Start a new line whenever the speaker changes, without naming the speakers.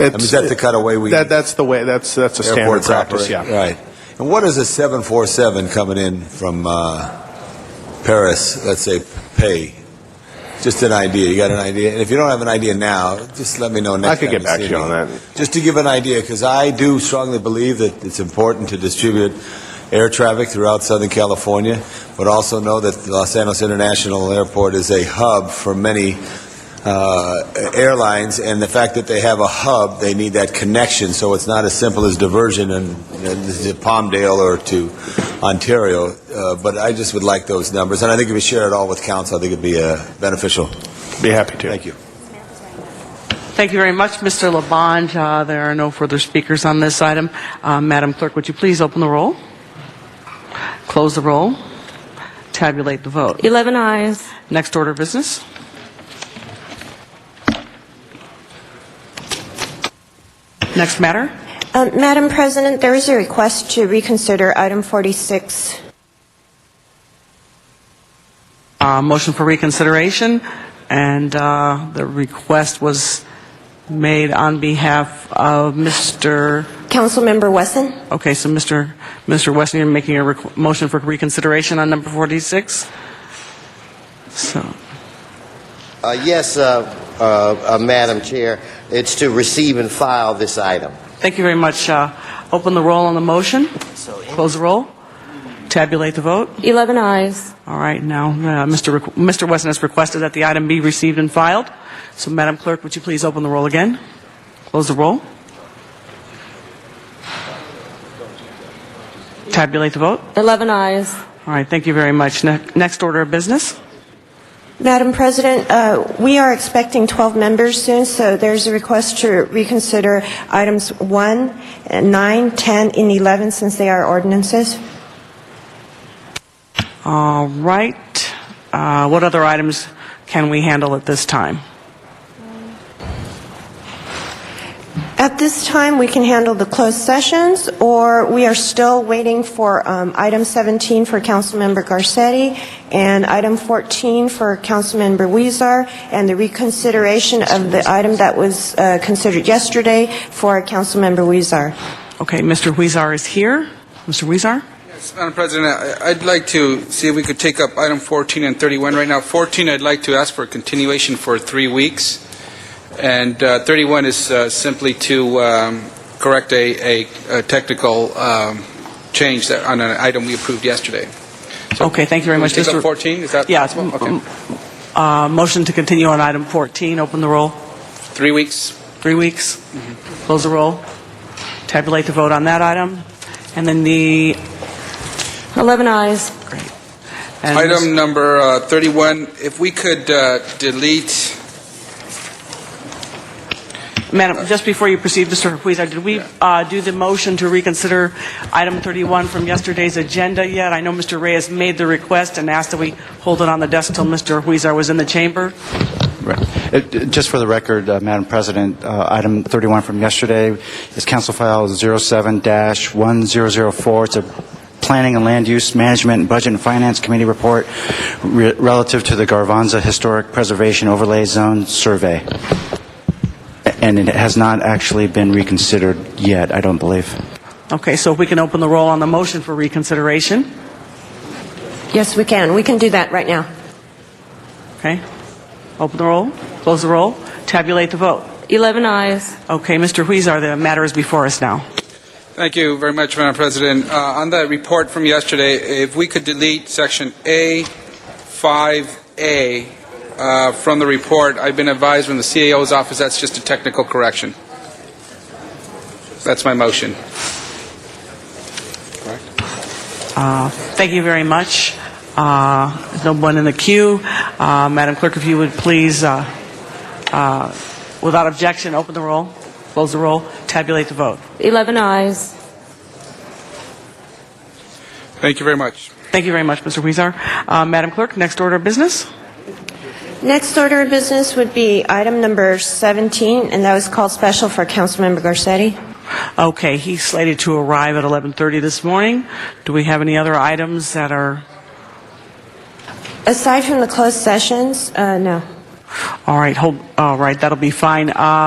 I mean, is that the cutaway we?
That, that's the way, that's, that's a standard
airports
practice,
operate?
yeah.
Right. And what is a 747 coming in from uh, Paris, let's say, pay? Just an idea. You got an idea? And if you don't have an idea now, just let me know next
I could
time
get back to
see
you
me.
on that.
Just to give an idea, because I do strongly believe that it's important to distribute air traffic throughout Southern California, but also know that Los Angeles International Airport is a hub for many uh, airlines, and the fact that they have a hub, they need that connection, so it's not as simple as diversion in in Palmdale or to Ontario. Uh, But I just would like those numbers, and I think if we share it all with council, I think it'd be uh, beneficial.
Be happy to.
Thank you.
Thank you very much, Mr. Labange. Uh, There are no further speakers on this item. Uh, Madam Clerk, would you please open the roll, close the roll, tabulate the vote.
11 eyes.
Next order of business. Next matter.
Um, Madam President, there is a request to reconsider item 46.
Uh, Motion for reconsideration, and uh, the request was made on behalf of Mr.,
Councilmember Wesson?
okay, so Mr. Mr. Weston, you're making a requ- motion for reconsideration on number 46? So,
Uh, Yes, uh, uh, uh, Madam Chair, it's to receive and file this item.
thank you very much. Uh, Open the roll on the motion, close the roll, tabulate the vote.
11 eyes.
All right, now, uh, Mr. Requ- Mr. Weston has requested that the item be received and filed. So Madam Clerk, would you please open the roll again? Close the roll. Tabulate the vote.
11 eyes.
All right, thank you very much. Ne- Next order of business.
Madam President, uh, we are expecting 12 members soon, so there's a request to reconsider items 1, uh, 9, 10, and 11, since they are ordinances.
All right, uh, what other items can we handle at this time?
At this time, we can handle the closed sessions, or we are still waiting for um, item 17 for Councilmember Garcetti, and item 14 for Councilmember Weezer, and the reconsideration of the item that was uh, considered yesterday for Councilmember Weezer.
Okay, Mr. Huizar is here. Mr. Huizar?
Yes, Madam President, I- I'd like to see if we could take up item 14 and 31 right now. 14, I'd like to ask for a continuation for three weeks, and uh, 31 is uh, simply to um, correct a a- a technical um, change that- on an item we approved yesterday. So-
Okay, thank you very
Can we
much,
take up
Mr.
14, is that
Yeah,
possible?
m-
Okay.
m- uh, Motion to continue on item 14, open the roll.
Three weeks?
Three weeks.
Mm-hmm.
Close the roll. Tabulate the vote on that item. And then the,
11 eyes.
great. And
Item number uh, 31, if we could uh, delete
Madam, just before you proceed, Mr. Huizar, did we uh, do the motion to reconsider item 31 from yesterday's agenda yet? I know Mr. Reyes made the request and asked that we hold it on the desk till Mr. Huizar was in the chamber.
Right. Uh, d- Just for the record, uh, Madam President, uh, item 31 from yesterday is Council File 07-1004. It's a Planning and Land Use Management Budget and Finance Committee report re- relative to the Garvanza Historic Preservation Overlay Zone Survey. A- And it has not actually been reconsidered yet, I don't believe.
Okay, so if we can open the roll on the motion for reconsideration,
Yes, we can. We can do that right now.
okay? Open the roll, close the roll, tabulate the vote.
11 eyes.
Okay, Mr. Huizar, the matter is before us now.
Thank you very much, Madam President. Uh, On that report from yesterday, if we could delete Section A5A uh, from the report, I've been advised from the CAO's office that's just a technical correction. That's my motion.
Thank you very much. Uh, No one in the queue. Uh, Madam Clerk, if you would please, uh, uh, without objection, open the roll, close the roll, tabulate the vote.
11 eyes.
Thank you very much.
Thank you very much, Mr. Huizar. Uh, Madam Clerk, next order of business?
Next order of business would be item number 17, and that was called special for Councilmember Garcetti.
Okay, he's slated to arrive at 11:30 this morning. Do we have any other items that are,
Aside from the closed sessions, uh, no.
all right, hold, all right, that'll be fine. Uh,